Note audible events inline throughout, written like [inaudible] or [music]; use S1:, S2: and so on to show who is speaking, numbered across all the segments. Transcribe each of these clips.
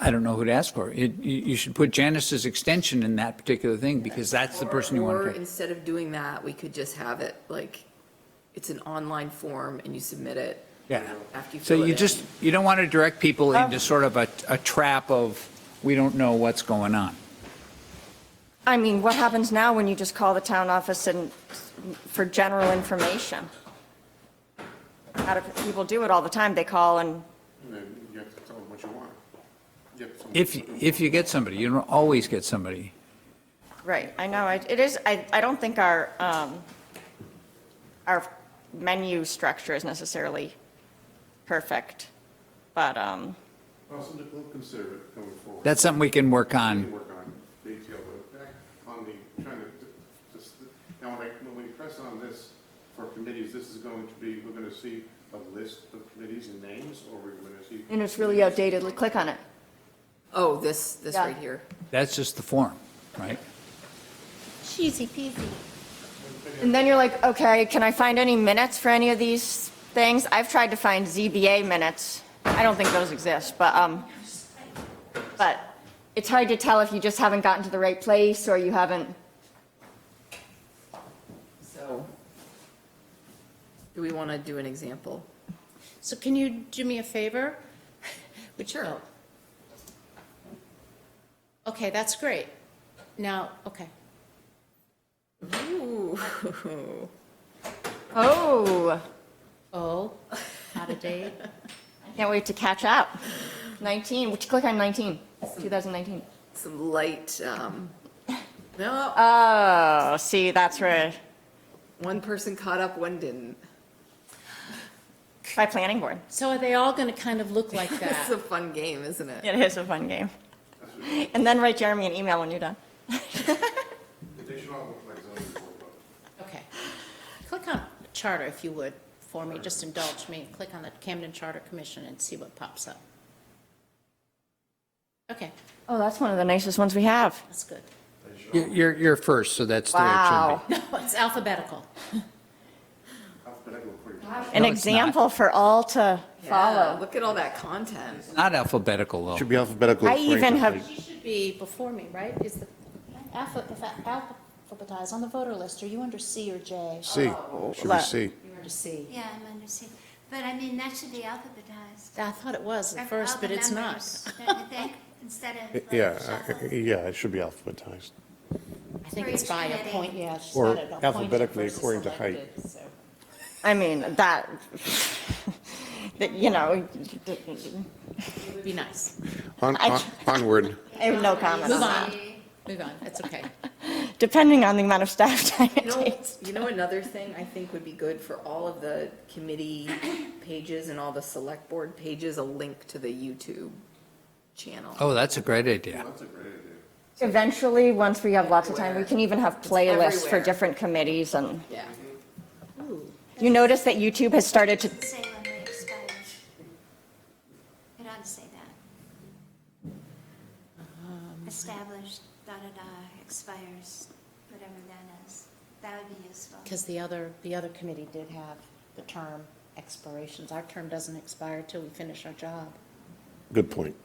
S1: I don't know who to ask for. It, you, you should put Janice's extension in that particular thing because that's the person you want
S2: Or
S1: to pick.
S2: instead of doing that, we could just have it like, it's an online form and you submit it.
S1: Yeah.
S2: After you
S1: So
S2: fill it
S1: you
S2: in.
S1: just, you don't want to direct people
S3: Oh.
S1: into sort of a, a trap of, we don't know what's going on.
S4: I mean, what happens now when you just call the town office and, for general information? How do people do it all the time? They call and,
S5: Then you have to tell them what you want. You have to tell them
S1: If,
S5: what you want.
S1: if you get somebody, you don't always get somebody.
S4: right, I know, I- it is, I, I don't think our, um, our menu structure is necessarily perfect, but, um,
S5: Well, so that we'll consider it going forward.
S1: That's something we can work
S5: We
S1: on.
S5: can work on the detail, but back on the, trying to, just, now when I, when we press on this for committees, this is going to be, we're gonna see a list of committees and names, or we're gonna see.
S4: and it's really outdated, click on it.
S2: Oh, this, this
S4: Yeah.
S2: right here.
S1: That's just the form, right?
S4: Cheesy peasy. And then you're like, okay, can I find any minutes for any of these things? I've tried to find ZBA minutes. I don't think those exist, but, um, but it's hard to tell if you just haven't gotten to the right place or you haven't,
S2: So. Do we want to do an example?
S3: So can you do me a favor? [laughs] Would you-
S2: Sure.
S3: Okay, that's great. Now, okay.
S2: Ooh.
S4: oh,
S3: Oh, out of date.
S4: I can't wait to catch up. 19, which click on 19, 2019.
S2: [laughs] Some light, um, no,
S4: Oh, see, that's where,
S2: one person caught up, one didn't.
S4: by planning board.
S3: So are they all going to kind of look like
S2: [laughs] It's a
S3: that?
S2: fun game, isn't it?
S4: It is a fun game. And then write Jeremy an email when you're done.
S5: They should all look like zoning board. though.
S3: Okay. Click on charter if you would, for me, just indulge me. Click on the Camden Charter Commission and see what pops up. Okay,
S4: Oh, that's one of the nicest ones we have.
S3: that's good.
S1: You- You're, you're first, so that's the way it should
S4: Wow.
S1: be.
S3: It's alphabetical.
S5: Alphabetical according to-
S4: An
S1: No, it's not.
S4: example for all to
S2: Follow,
S4: follow.
S2: look at all that content.
S1: Not alphabetical, though.
S6: Should be alphabetical.
S4: I
S6: according
S4: even
S6: to
S4: have-
S6: height.
S3: She should be before me, right? Is the, alpha- if I alphabetize on the voter list, are you under C or J?
S6: C, should be
S4: Let-
S6: C.
S3: Oh, You're under C.
S7: Yeah, I'm understanding. But I mean, that should be alphabetized.
S3: I thought it was
S7: Of
S3: at first,
S7: all
S3: but
S7: the
S3: it's not.
S7: members, Don't you think, instead of like,
S6: Yeah, uh,
S7: shuffle.
S6: yeah, it should be alphabetized.
S3: I think
S7: For
S3: it's
S7: each
S3: by a
S7: committee.
S3: point, yeah. it's
S6: Or
S3: not at a point
S6: alphabetically
S3: versus
S6: according to height.
S3: elected, so.
S4: I mean, that, [laughs] that, you know,
S3: It would be nice.
S6: On,
S4: I-
S6: on- onward.
S4: I have no comment on
S3: Move
S4: that.
S3: on, move on, it's okay.
S4: Depending on the amount of staff [laughs] time
S2: You
S4: it
S2: know,
S4: takes.
S2: you know, another thing I think would be good for all of the committee pages and all the select board pages, a link to the YouTube channel.
S1: Oh, that's a great idea.
S5: That's a great idea.
S4: Eventually, once we have lots of time, we can even have playlists for
S2: everywhere.
S4: different committees and
S2: Yeah.
S4: you notice that YouTube has started to,
S7: Say when they expire. It ought to say that.
S3: Um,
S7: Established, da-da-da, expires, whatever that is. That would be useful.
S3: Because the other, the other committee did have the term expirations. Our term doesn't expire till we finish our job.
S6: Good point,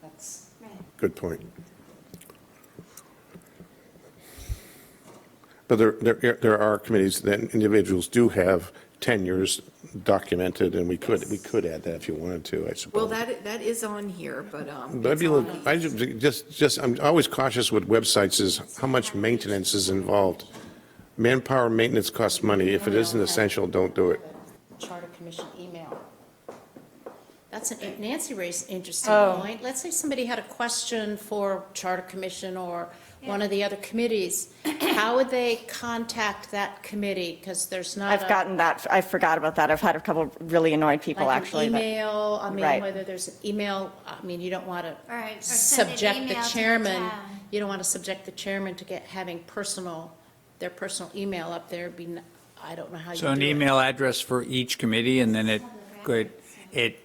S3: That's,
S7: Right.
S6: good point. But there, there, there are committees that individuals do have tenures documented, and we could, we could add that if you wanted to, I suppose.
S2: Well, that, that is on here, but, um.
S6: But I'd
S2: it's
S6: be, a
S2: on
S6: little-
S2: the-
S6: I ju- just, just, I'm always cautious with websites is how much maintenance is involved. Manpower maintenance costs money. If it isn't essential, don't do it.
S3: Charter Commission email. That's, an Nancy raised an interesting
S4: Oh.
S3: point. Let's say somebody had a question for Charter Commission or one of the other committees. How would they contact that committee? Because there's not
S4: I've
S3: a-
S4: gotten that, I forgot about that. I've had a couple really annoyed people
S3: like
S4: actually.
S3: an
S4: that-
S3: email, I mean,
S4: Right.
S3: whether there's an email, I mean, you don't want
S7: Or- or
S3: to
S7: send an
S3: subject the
S7: email to the
S3: chairman,
S7: town.
S3: you don't want to subject the chairman to get, having personal, their personal email up there, be, n- I don't know how you do
S1: So an
S3: it.
S1: email address for each committee, and then it, good, it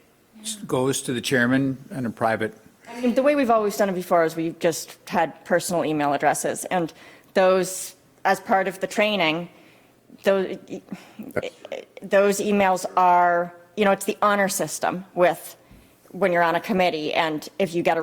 S1: goes to the chairman on a private,
S4: I mean, The way we've always done it before is we've just had personal email addresses, and those, as part of the training, those, those emails are, you know, it's the honor system with, when you're on a committee, and if you get a